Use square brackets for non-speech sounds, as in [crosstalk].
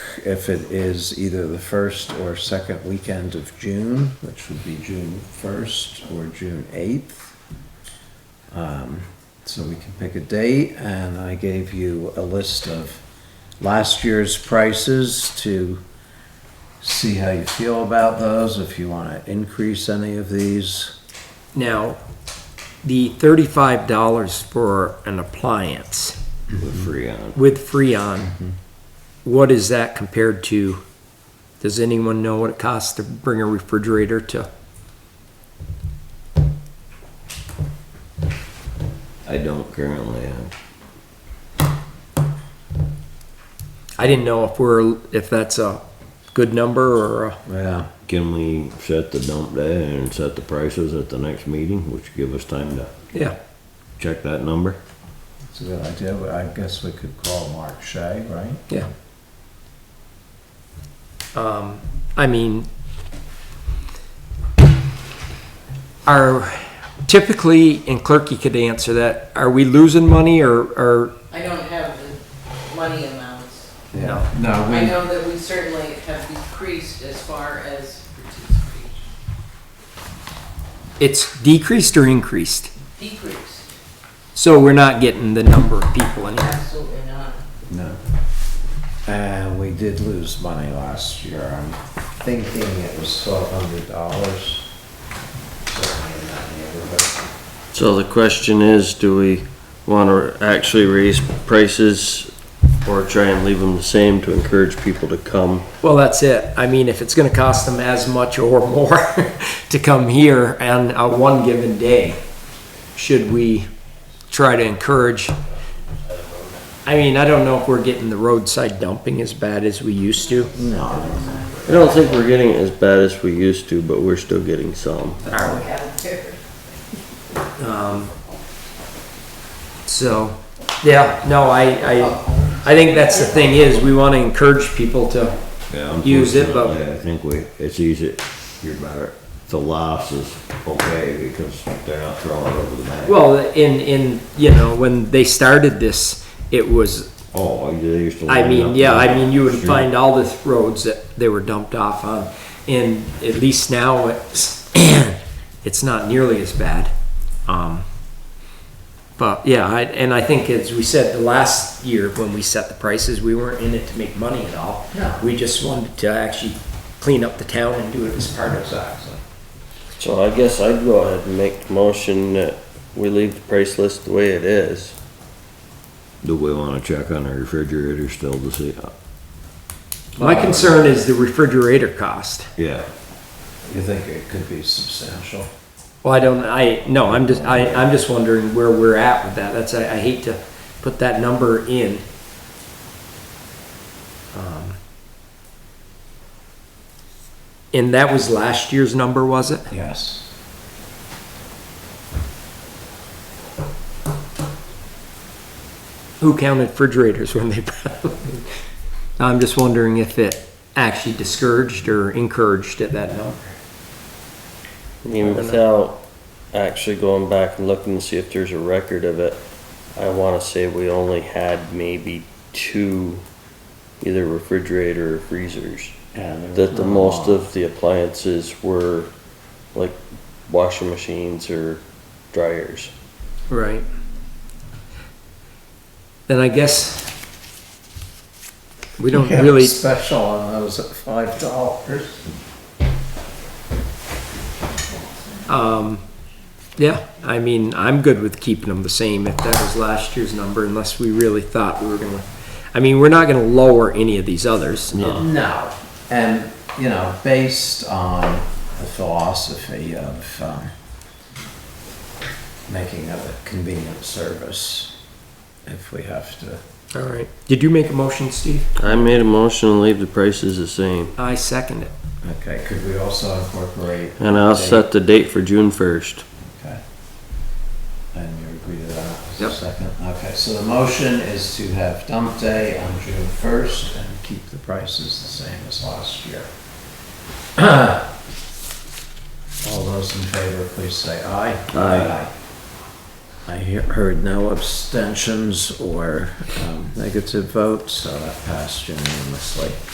if it is either the first or second weekend of June, which would be June first or June eighth. Um, so we can pick a date, and I gave you a list of last year's prices to see how you feel about those, if you wanna increase any of these. Now, the thirty-five dollars for an appliance Freon. with Freon, what is that compared to? Does anyone know what it costs to bring a refrigerator to? I don't currently uh, have. I didn't know if we're, if that's a good number or a, Yeah, Can we set the dump day and set the prices at the next meeting, which give us time to yeah. check that number? it's a good idea, but I guess we could call Mark Shea, right? Yeah. Um, I mean, are typically, and Clerky could answer that, are we losing money or, or? I don't have the money amounts. Yeah. No, I know that we certainly have decreased as far as participation, It's decreased or increased? decreased, So we're not getting the number of people in here. absolutely not. No. And we did lose money last year. I'm thinking it was twelve hundred dollars. Certainly in that neighborhood. So the question is, do we wanna actually raise prices or try and leave them the same to encourage people to come? Well, that's it. I mean, if it's gonna cost them as much or more [laughs] to come here on a one given day, should we try to encourage? I mean, I don't know if we're getting the roadside dumping as bad as we used to. I don't think we're getting it as bad as we used to, but we're still getting some. Are we? Um, So, yeah, no, I, I, I think that's the thing is, we wanna encourage people to, Yeah. Use it, but- unfortunately, I think we, it's easy, you're better, the loss is okay because they're not throwing it over the bank. well, in, in, you know, when they started this, it was Oh, they used to. I line mean, up yeah, I there. mean, you would Sure. find all the roads that they were dumped off on, and at least now it's, [clears throat] it's not nearly as bad. Um, but yeah, I, and I think as we said the last year when we set the prices, we weren't in it to make money at all. No. We just wanted to actually clean up the town and do it as part of that. So I guess I'd go ahead and make the motion that we leave the price list the way it is. Do we wanna check on the refrigerator still to see, uh, My concern is the refrigerator cost. yeah, You think it could be substantial? Well, I don't, I, no, I'm just, I, I'm just wondering where we're at with that. That's, I, I hate to put that number in. Um, And that was last year's number, was it? Yes. Who counted refrigerators when they [laughs] brought them? in? I'm just wondering if it actually discouraged or encouraged at that number. Even without actually going back and looking to see if there's a record of it, I wanna say we only had maybe two, either refrigerator or freezers. that the most of the appliances were like washing machines or dryers. Right. Then I guess we don't really. Special on those at five dollars. Um, yeah, I mean, I'm good with keeping them the same if that was last year's number, unless we really thought we were gonna. I mean, we're not gonna lower any of these others. Um, No. No, and, you know, based on the philosophy of, um, making of a convenient service, if we have to. All right. Did you make a motion, Steve? I made a motion to leave the prices the same, I second it. Okay, could we also incorporate? and I'll Okay. set the date for June first. Okay. And you agree to that? as a Yep. Second, okay, so the motion is to have dump day on June first and keep the prices the same as last year. [clears throat] All those in favor, please say aye. Aye. I he- heard no abstentions or um, negative votes, so that passed unanimously.